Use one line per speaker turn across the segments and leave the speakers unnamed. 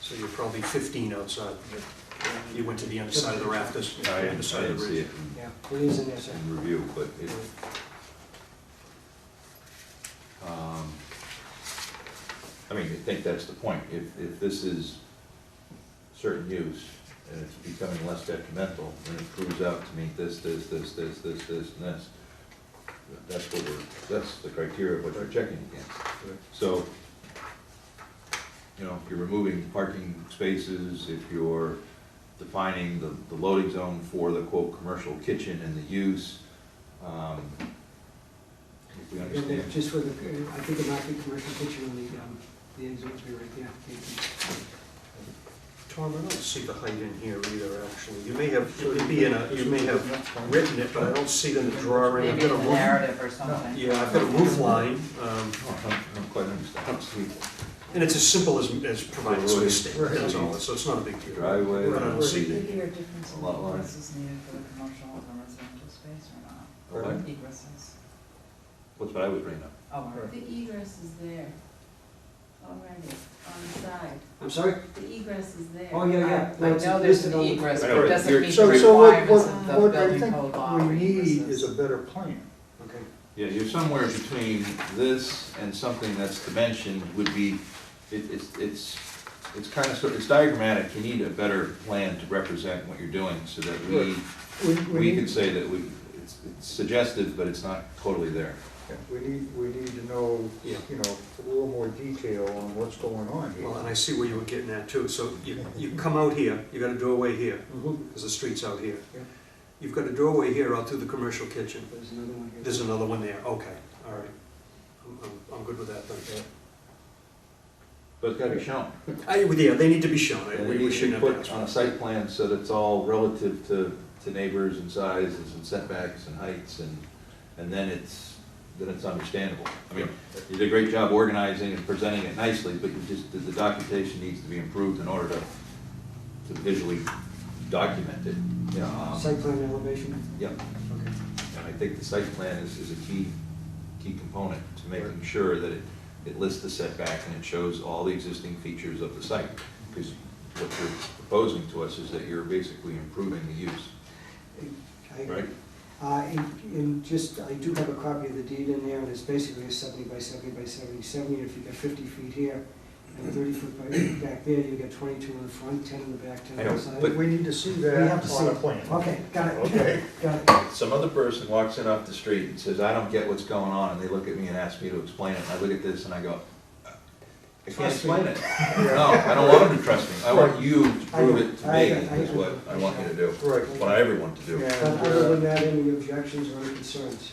So you're probably 15 outside. You went to the underside of the rafters,
I I didn't
underside of the
see
bridge.
it in-
Yeah, it is in there, sir.
in review, but it, um, I mean, I think that's the point. If, if this is certain use and it's becoming less detrimental, and it proves out to meet this, this, this, this, this, this, and this, that's what we're, that's the criteria of what we're checking against. So, you know, if you're removing parking spaces, if you're defining the, the loading zone for the quote, "commercial kitchen" and the use, um, if we
And then
understand.
Just for the, uh, I think it might be commercial kitchen on the, um, the end zone to be right there.
Tom, I don't see the height in here either, actually. You may have, it could be in a, you may have written it, but I don't see it in the drawing. I've
Maybe in
got a
the
roof,
narrative or something.
yeah, I've got a roof line, um,
Oh, I don't- I don't quite understand.
and it's as simple as, as providing space there, that's all, so it's not a big deal.
Driveway.
But I don't see it.
Figure difference in
A lot line.
egress is needed for the commercial or residential space or not?
What?
Egresses.
What's what I was bringing up?
Oh,
Right.
The egress is there already, on the side.
I'm sorry?
The egress is there.
Oh, yeah, yeah.
I know there's an egress, but it doesn't meet the
So- so what-
requirements
what-
of the building code law.
What I think we need
egresses.
is a better plan.
Okay.
Yeah, you're somewhere between this and something that's dimensioned would be, it, it's, it's, it's kind of, sort- it's diagrammatic, you need a better plan to represent what you're doing, so that we,
We,
we
we
can
need,
say that we, it's it's suggestive, but it's not totally there.
we need, we need to know,
Yeah.
you know, a little more detail on what's going on here.
Well, and I see where you were getting at too, so you, you come out here, you got a doorway here,
Mhm.
because the street's out here.
Yeah.
You've got a doorway here out through the commercial kitchen.
There's another one here.
There's another one there, okay, all right. I'm, I'm, I'm good with that then.
But it's gotta be shown.
I, well, Uh, yeah, they need to be shown, I-
And
we
it
we
needs to be
shouldn't have
put
asked.
on a
for
site plan, so that it's all relative to, to neighbors and sizes and setbacks and heights, and, and then it's, then it's understandable. I mean, you did a great job organizing and presenting it nicely, but you just, the- the documentation needs to be improved in order to, to visually document it. Yeah, um,
Site plan elevation.
Yep,
Okay.
and I think the site plan is, is a key, key component to making sure that it, it lists the setback and it shows all the existing features of the site. Because what you're proposing to us is that you're basically improving the use,
I-
right?
Uh, and, and just, I do have a copy of the deed in there, and it's basically a seventy by seventy by seventy, seventy, if you got fifty feet here, and thirty foot by, back there, you got twenty-two in the front, ten in the back, ten
I
on
know,
the side.
but-
We need to see
We have to
that
see
on a
it.
plan.
Okay, got it.
Okay.
Got it.
Some other person walks in off the street and says, I don't get what's going on, and they look at me and ask me to explain it, and I look at this and I go, I can't
Trust me.
explain it. No, I don't want them to trust me, I want you to prove it to
I- I-
me,
I-
is what I want you to do,
Right.
what I ever want to do.
Yeah.
But other than that, any objections or any concerns?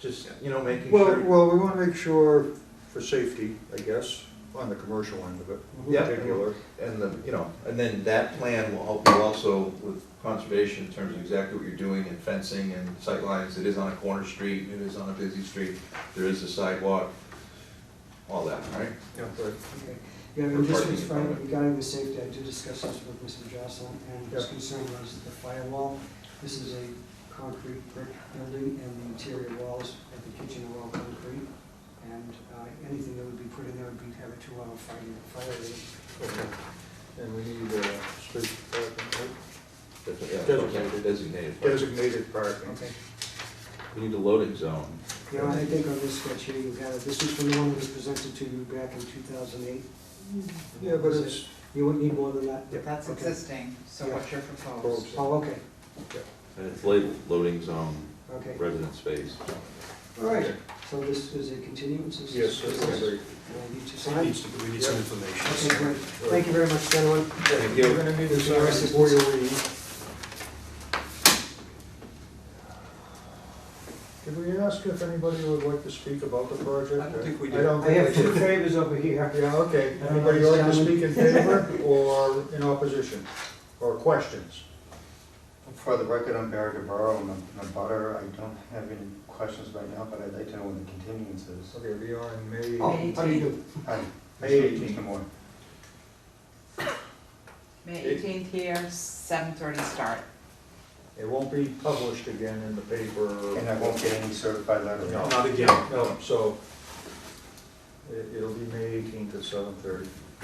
Just, you know, making sure.
Well, well, we wanna make sure for safety, I guess, on the commercial end of it. in
Mm-hmm. Yeah.
particular.
And the, you know, and then that plan will help you also with conservation in terms of exactly what you're doing and fencing and sight lines. It is on a corner street, it is on a busy street, there is a sidewalk, all that, right?
Right.
Okay. Yeah, and just
Parking.
as far regarding the safety, I did discuss this with Mr. Jocelyn, and his
Yeah.
concern was the firewall. This is a concrete brick building, and the interior walls of the kitchen are all concrete. And uh, anything that would be put in there would be, have a two-hour fire, fire rating.
Okay. And we need, uh, space parking, right?
That's what- yeah,
Designated.
Designated.
designated parking.
Okay.
We need a loading zone.
Yeah, I think on this sketch here, you got it. This was from the one that was presented to you back in 2008.
Mm.
Yeah, but it's,
You wouldn't need more than that?
Yeah.
That's
Okay.
existing, so
Yeah.
what you're
Proposed.
proposed.
Oh, okay,
And it's labeled loading zone,
okay.
resident space.
All right, so this is a continuance? This is-
yes, that's right.
Uh, You two
it. We
sign?
need some- We need some
Okay,
information.
great. Thank you very much, gentlemen.
Thank
We're gonna need to sign
Yes.
before you leave. Did we ask if anybody would like to speak about the project?
I don't think we
I
did.
don't
I
think
have
we
two
did.
favors over here.
Yeah, okay.
I don't know,
Anybody like to
gentlemen.
speak in favor or in opposition? Or questions?
For the record, I'm Barry DeBarro, I'm a- I'm a butter, I don't have any questions right now, but I'd like to know when the continuance is.
Okay, we are in May.
Oh, how do you do?
Hi,
May
Mr. Moore.
May eighteenth here, seven thirty start.
It won't be published again in the paper.
And I won't get any certified letter.
No.
Not again.
No, so it- it'll be May eighteenth at seven thirty.